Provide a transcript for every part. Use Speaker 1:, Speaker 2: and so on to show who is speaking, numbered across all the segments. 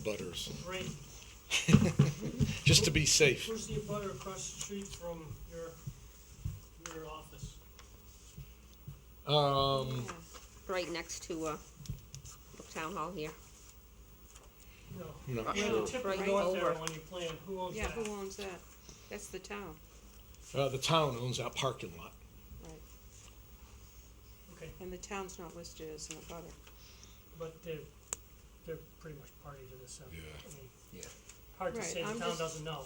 Speaker 1: abutters,
Speaker 2: Right,
Speaker 1: just to be safe.
Speaker 2: who's the butter across the street from your, your office?
Speaker 1: Um,
Speaker 3: right next to, uh, the town hall here.
Speaker 2: No.
Speaker 1: Uh, no,
Speaker 2: Yeah, the tip of
Speaker 3: Right
Speaker 2: north arrow
Speaker 3: over.
Speaker 2: on your plan, who owns
Speaker 4: Yeah,
Speaker 2: that?
Speaker 4: who owns that? That's the town.
Speaker 1: uh, the town owns that parking lot.
Speaker 4: Right.
Speaker 2: Okay,
Speaker 4: And the town's not listed as an abutter.
Speaker 2: but they're, they're pretty much party to this, so, I
Speaker 1: Yeah.
Speaker 2: mean,
Speaker 5: Yeah,
Speaker 2: hard to
Speaker 4: Right,
Speaker 2: say, the
Speaker 4: I'm
Speaker 2: town
Speaker 4: just-
Speaker 2: doesn't know.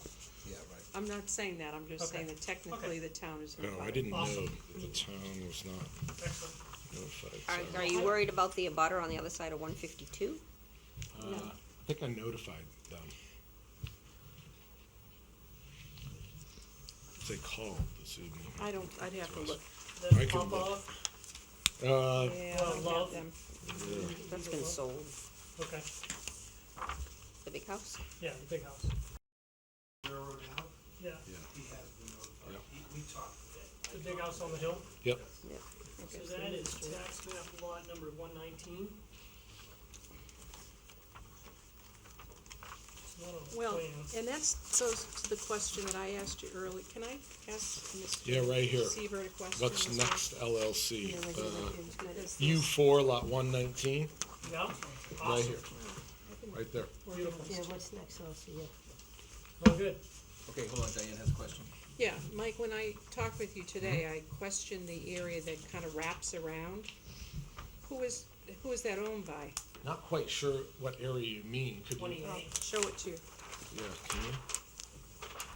Speaker 5: yeah, right.
Speaker 4: I'm not saying that, I'm just saying
Speaker 2: Okay.
Speaker 4: that technically the town is an
Speaker 1: No,
Speaker 4: abutter.
Speaker 1: I didn't know
Speaker 2: Awesome.
Speaker 1: that the town was not
Speaker 2: Excellent,
Speaker 3: Are,
Speaker 1: notified.
Speaker 3: are
Speaker 1: so-
Speaker 3: you worried about the abutter on the other side of one fifty-two?
Speaker 1: Uh, I think I notified them. They called this evening.
Speaker 4: I don't, I'd have to
Speaker 1: us.
Speaker 4: look.
Speaker 1: I
Speaker 2: then
Speaker 1: can
Speaker 2: pop
Speaker 1: look.
Speaker 2: off,
Speaker 1: Uh,
Speaker 4: Yeah,
Speaker 2: Well,
Speaker 4: I
Speaker 2: love-
Speaker 4: have them.
Speaker 3: That's been sold,
Speaker 2: okay,
Speaker 3: the big house.
Speaker 2: yeah, the big house,
Speaker 6: railroad out,
Speaker 2: yeah,
Speaker 6: he has been notified.
Speaker 1: Yep.
Speaker 6: He- We talked today.
Speaker 2: the big house on the hill.
Speaker 1: yep,
Speaker 2: So that is tax map lot number one nineteen. It's not on the
Speaker 4: Well,
Speaker 2: plan.
Speaker 4: and that's, so, to the question that I asked you earlier, can I ask Mr.
Speaker 1: yeah, right here.
Speaker 4: Seaver a question?
Speaker 1: What's
Speaker 4: as well?
Speaker 1: next LLC? Uh,
Speaker 4: Is
Speaker 1: U
Speaker 4: this-
Speaker 1: four lot one nineteen,
Speaker 2: Yeah,
Speaker 1: right
Speaker 2: awesome,
Speaker 1: here, right there.
Speaker 2: beautiful,
Speaker 7: what's next, I'll see you.
Speaker 2: well, Oh, good,
Speaker 5: Okay, hold on, Diane has a question.
Speaker 4: Yeah, Mike, when I talked with you today, I
Speaker 1: Mm-hmm.
Speaker 4: questioned the area that kind of wraps around. Who is, who is that owned by?
Speaker 1: Not quite sure what area you mean, could you?
Speaker 2: twenty-eight.
Speaker 4: Show it to you.
Speaker 1: Yeah, can you?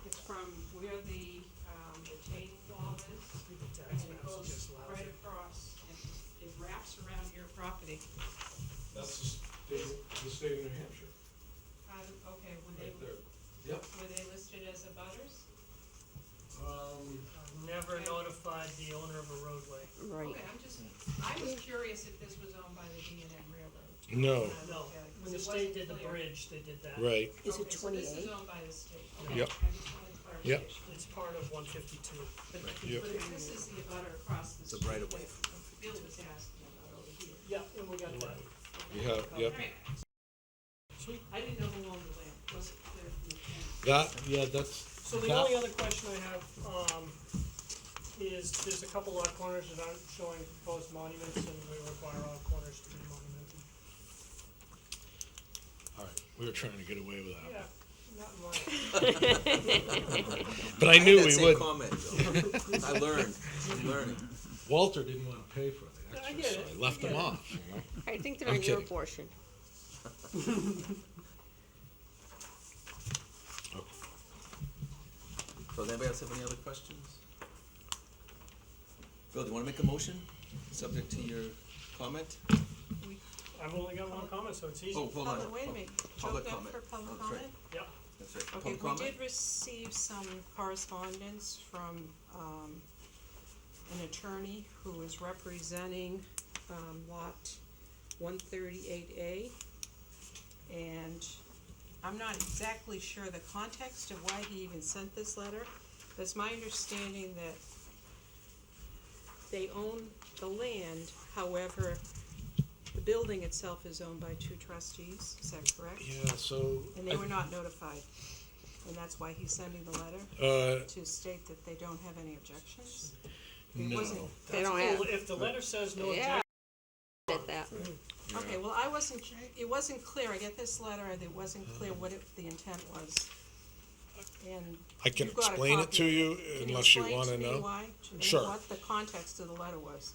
Speaker 4: It's from where the, um, the chain wall is.
Speaker 2: The
Speaker 4: And
Speaker 2: tax
Speaker 4: it
Speaker 2: map's
Speaker 4: goes
Speaker 2: just lousy.
Speaker 4: right across, and it wraps around your property.
Speaker 1: That's the state, the state of New Hampshire,
Speaker 4: How, do- okay, were they,
Speaker 1: Yep.
Speaker 4: were they listed as abutters?
Speaker 1: Um,
Speaker 2: I've Never notified the owner of a roadway,
Speaker 3: Right.
Speaker 4: Okay, I'm just, I was curious if this was owned by the D and M Railroad.
Speaker 1: no,
Speaker 4: when I
Speaker 2: no,
Speaker 4: looked at it, 'cause
Speaker 2: when the
Speaker 4: it
Speaker 2: state
Speaker 4: wasn't
Speaker 2: did the
Speaker 4: clear.
Speaker 2: bridge, they did that.
Speaker 7: Is it
Speaker 1: right,
Speaker 4: Okay, so this is
Speaker 7: twenty-eight?
Speaker 4: owned by the state. Okay,
Speaker 1: Yep.
Speaker 4: I just wanted
Speaker 1: Yep.
Speaker 4: clarification.
Speaker 2: It's part of one fifty-two.
Speaker 1: Yep.
Speaker 4: But if this is the abutter across the
Speaker 5: It's a
Speaker 4: street.
Speaker 5: right of way.
Speaker 4: that Bill was asking about over here.
Speaker 2: Yeah, and we got that.
Speaker 1: yeah, yep.
Speaker 4: All right.
Speaker 2: Sweet.
Speaker 4: I didn't know who owned the land, It wasn't clear from the plan.
Speaker 1: That, yeah, that's.
Speaker 2: So the
Speaker 1: that-
Speaker 2: only other question I have, um, is there's a couple lot corners that aren't showing proposed monuments and we require all corners to be monumented.
Speaker 1: All right, we were trying to get away with that,
Speaker 2: Yeah, not mine.
Speaker 1: but I knew
Speaker 5: That
Speaker 1: we
Speaker 5: same
Speaker 1: would.
Speaker 5: comment, though. I learned, I'm learning.
Speaker 1: Walter didn't want to pay for the
Speaker 2: I
Speaker 1: extras, so
Speaker 2: get it,
Speaker 1: I left them
Speaker 2: yeah.
Speaker 1: off, you know?
Speaker 3: I think they're
Speaker 1: I'm
Speaker 3: in your
Speaker 1: kidding.
Speaker 3: portion.
Speaker 5: So does anybody else have any other questions? Bill, do you wanna make a motion, subject to your comment?
Speaker 2: I've only got one comment, so it's
Speaker 5: Oh,
Speaker 2: easy.
Speaker 5: hold on.
Speaker 4: Public- wait a minute,
Speaker 5: Public
Speaker 4: Joke up
Speaker 5: comment.
Speaker 4: for public
Speaker 5: Oh, that's right.
Speaker 4: comment?
Speaker 2: Yeah,
Speaker 5: That's right,
Speaker 4: Okay,
Speaker 5: public
Speaker 4: we
Speaker 5: comment?
Speaker 4: did receive some correspondence from, um, an attorney who is representing, um, lot one thirty-eight A. And I'm not exactly sure the context of why he even sent this letter, but it's my understanding that they own the land, however, the building itself is owned by two trustees, is that correct?
Speaker 1: Yeah, so,
Speaker 4: And they were not notified, and that's why he's sending the letter,
Speaker 1: uh,
Speaker 4: to state that they don't have any objections? It wasn't,
Speaker 1: no,
Speaker 3: They don't
Speaker 2: Well,
Speaker 3: have,
Speaker 2: If the letter says no
Speaker 3: yeah.
Speaker 2: objection,
Speaker 3: At that,
Speaker 7: Mm.
Speaker 4: okay, well, I wasn't, it wasn't clear, I get this letter, and it wasn't clear what it, the intent was. And
Speaker 1: I can
Speaker 4: you got a
Speaker 1: explain it
Speaker 4: copy
Speaker 1: to
Speaker 4: of
Speaker 1: you
Speaker 4: Can
Speaker 1: unless you
Speaker 4: explain
Speaker 1: want to
Speaker 4: to me
Speaker 1: know.
Speaker 4: why, to me
Speaker 1: Sure. Um,
Speaker 4: What the context of the letter was?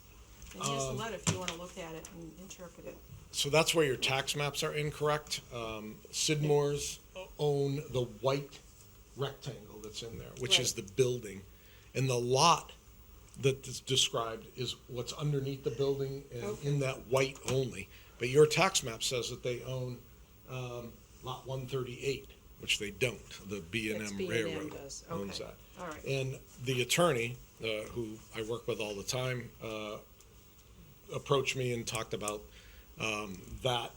Speaker 4: And here's the letter if you wanna look at it and interpret it.
Speaker 1: So that's where your tax maps are incorrect. Um, Sidmore's own the white rectangle that's in there, which is the building. And the lot that is described is what's underneath the building and in that white only. But your tax map says that they own, um, lot one thirty-eight, which they don't. The B and
Speaker 4: That's
Speaker 1: M
Speaker 4: B&M
Speaker 1: Railroad
Speaker 4: does.
Speaker 1: owns
Speaker 4: Okay.
Speaker 1: that.
Speaker 4: All right.
Speaker 1: And the attorney, uh, who I work with all the time, uh, approached me and talked about um, that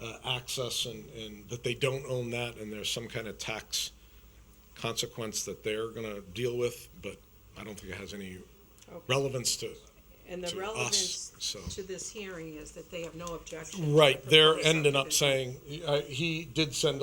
Speaker 1: uh, access and, and that they don't own that and there's some kind of tax consequence that they're going to deal with, but I don't think it has any relevance to
Speaker 4: And the
Speaker 1: to us,
Speaker 4: relevance
Speaker 1: so.
Speaker 4: to this hearing is that they have no objection. to the
Speaker 1: Right, they're
Speaker 4: proposed
Speaker 1: ending up
Speaker 4: subdivision.
Speaker 1: saying, uh, he did send a